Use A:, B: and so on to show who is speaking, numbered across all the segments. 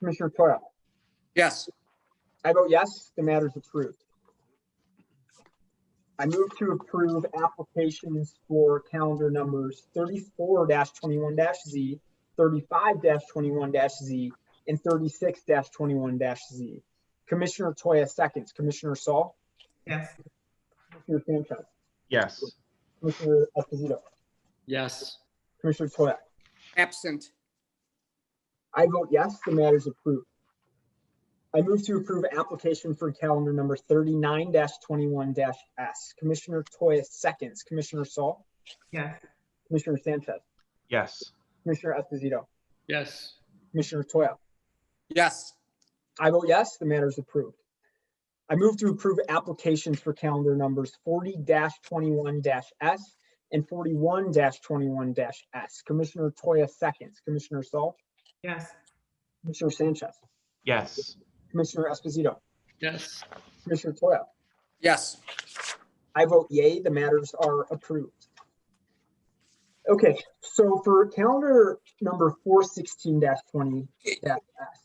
A: Commissioner Toya.
B: Yes.
A: I vote yes, the matter is approved. I move to approve applications for calendar numbers thirty-four twenty-one Z, thirty-five twenty-one Z, and thirty-six twenty-one Z. Commissioner Toya seconds, Commissioner Saul,
C: yes,
A: Commissioner Sanchez,
D: yes,
A: Commissioner Esposito,
E: yes,
A: Commissioner Toya.
B: Absent.
A: I vote yes, the matter is approved. I move to approve application for calendar number thirty-nine twenty-one S. Commissioner Toya seconds, Commissioner Saul,
C: yes,
A: Commissioner Sanchez,
D: yes,
A: Commissioner Esposito,
E: yes,
A: Commissioner Toya.
B: Yes.
A: I vote yes, the matter is approved. I move to approve applications for calendar numbers forty twenty-one S and forty-one twenty-one S. Commissioner Toya seconds, Commissioner Saul,
C: yes,
A: Commissioner Sanchez,
D: yes,
A: Commissioner Esposito,
E: yes,
A: Commissioner Toya.
B: Yes.
A: I vote yay, the matters are approved. Okay, so for calendar number four sixteen twenty,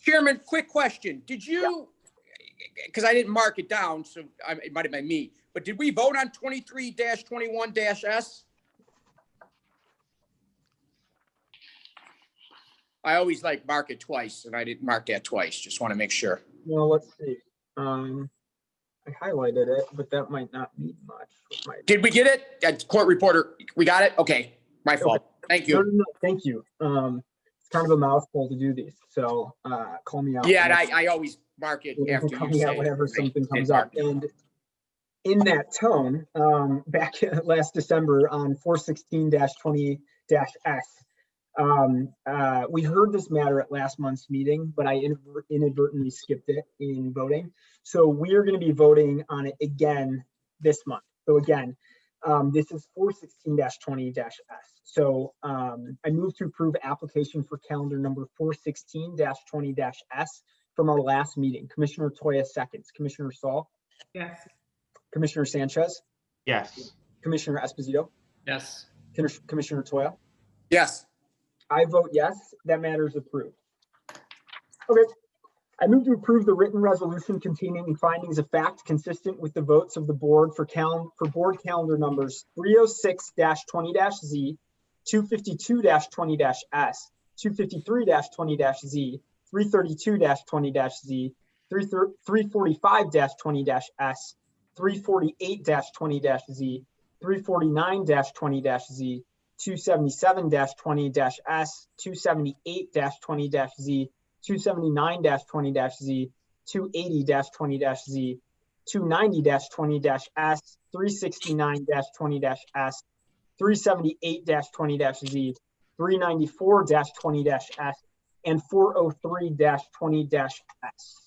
B: Chairman, quick question. Did you, because I didn't mark it down, so I- it might have been me, but did we vote on twenty-three twenty-one S? I always like mark it twice, and I didn't mark that twice. Just want to make sure.
A: well, let's see. Um, I highlighted it, but that might not mean much. It might-
B: Did we get it? Uh, Court reporter, we got it? Okay, my fault. Thank
A: No,
B: you.
A: no, no, thank you. Um, it's kind of a mouthful to do these, so, uh, call me out.
B: Yeah, and
A: when-
B: I, I always mark it
A: Whatever
B: after you
A: comes out,
B: say it.
A: Whenever
B: Right.
A: something
B: Didn't
A: comes
B: mark
A: up.
B: it.
A: And in that tone, um, back last December on four sixteen twenty S, um, uh, we heard this matter at last month's meeting, but I inadver- inadvertently skipped it in voting. So we are going to be voting on it again this month. So again, um, this is four sixteen twenty S. So, um, I move to approve application for calendar number four sixteen twenty S from our last meeting. Commissioner Toya seconds, Commissioner Saul,
C: yes,
A: Commissioner Sanchez,
D: yes,
A: Commissioner Esposito,
E: yes,
A: Commis- Commissioner Toya.
B: Yes,
A: I vote yes, that matter is approved. Okay, I move to approve the written resolution containing findings of fact consistent with the votes of the board for cal, for board calendar numbers three oh six twenty Z, two fifty-two twenty S, two fifty-three twenty Z, three thirty-two twenty Z, three three forty-five twenty S, three forty-eight twenty Z, three forty-nine twenty Z, 277-20-S, 278-20-Z, 279-20-Z, 280-20-Z, 290-20-S, 369-20-S, 378-20-Z, 394-20-S, and 403-20-S.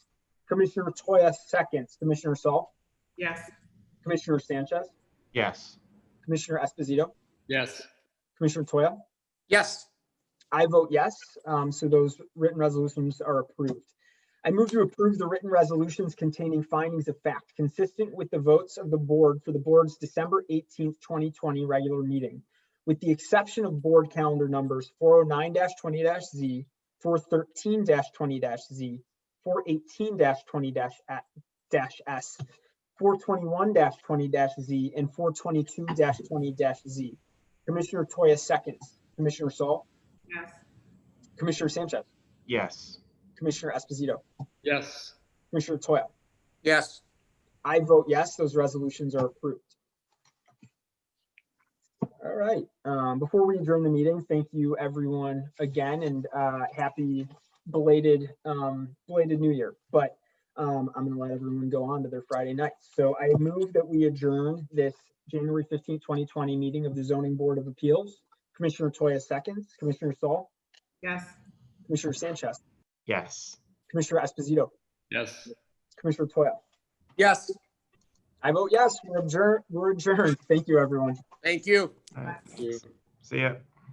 A: Commissioner Toya seconds, Commissioner Saul,
C: yes,
A: Commissioner Sanchez,
D: yes,
A: Commissioner Esposito,
E: yes,
A: Commissioner Toya.
B: yes,
A: I vote yes, um, so those written resolutions are approved. I move to approve the written resolutions containing findings of fact consistent with the votes of the board for the board's December eighteenth, twenty twenty regular meeting, with the exception of board calendar numbers four oh nine twenty Z, four thirteen twenty Z, four eighteen twenty S, four twenty-one twenty Z, and four twenty-two twenty Z. Commissioner Toya seconds, Commissioner Saul.
C: yes,
A: Commissioner Sanchez,
D: yes,
A: Commissioner Esposito,
E: yes,
A: Commissioner Toya.
B: yes,
A: I vote yes, those resolutions are approved. All right, um, before we adjourn the meeting, thank you everyone again and, uh, happy belated, um, belated new year. But, um, I'm gonna let everyone go on to their Friday night. So I move that we adjourn this January fifteenth, twenty twenty meeting of the zoning board of appeals. Commissioner Toya seconds, Commissioner Saul,
C: yes,
A: Commissioner Sanchez,
D: yes,
A: Commissioner Esposito,
E: yes.
A: Commissioner Toya.
B: yes.
A: I vote yes, we're adjourned, we're adjourned. Thank you, everyone.
B: Thank you.
D: All right. see ya.